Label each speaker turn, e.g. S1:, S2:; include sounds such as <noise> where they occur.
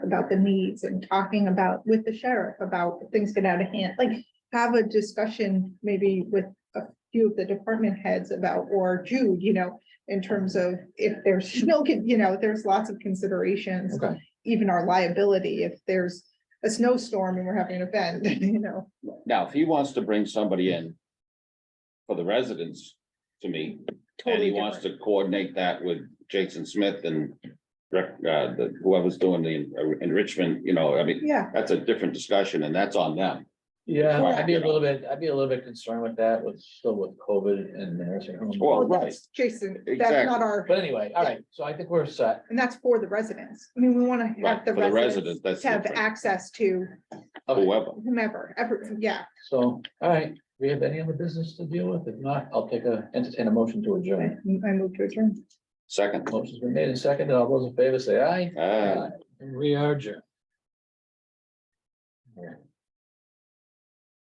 S1: about the needs and talking about with the sheriff about if things get out of hand, like have a discussion maybe with a few of the department heads about, or Jude, you know, in terms of if there's <laughs> snow, con- you know, there's lots of considerations,
S2: Okay,
S1: even our liability, if there's a snowstorm and we're having an event, <laughs> you know.
S3: Now, if he wants to bring somebody in for the residents to me, and
S1: totally
S3: he wants
S1: different.
S3: to coordinate that with Jason Smith and rec- uh, the- whoever's doing the en- enrichment, you know, I mean,
S1: Yeah,
S3: that's a different discussion and that's on them.
S2: yeah,
S3: Right.
S2: I'd be a little bit, I'd be a little bit concerned with that with still with COVID and nursing homes.
S3: Well,
S1: well,
S3: right.
S1: that's Jason, that's
S3: Exactly.
S1: not our,
S2: But anyway, all right, so I think we're set.
S1: and that's for the residents. I mean, we want to
S3: Right,
S1: have the
S3: for the
S1: residents
S3: residents, that's
S1: have
S3: different.
S1: access to
S2: Okay,
S3: Whoever,
S1: whomever, ever, yeah.
S2: so, all right, we have any other business to deal with? If not, I'll take a, entertain a motion to
S1: I
S2: adjourn.
S1: I move to adjourn.
S3: second. Ah.
S2: Motion's been made and seconded. All those in favor say aye.
S3: Uh,
S2: We are adjourned.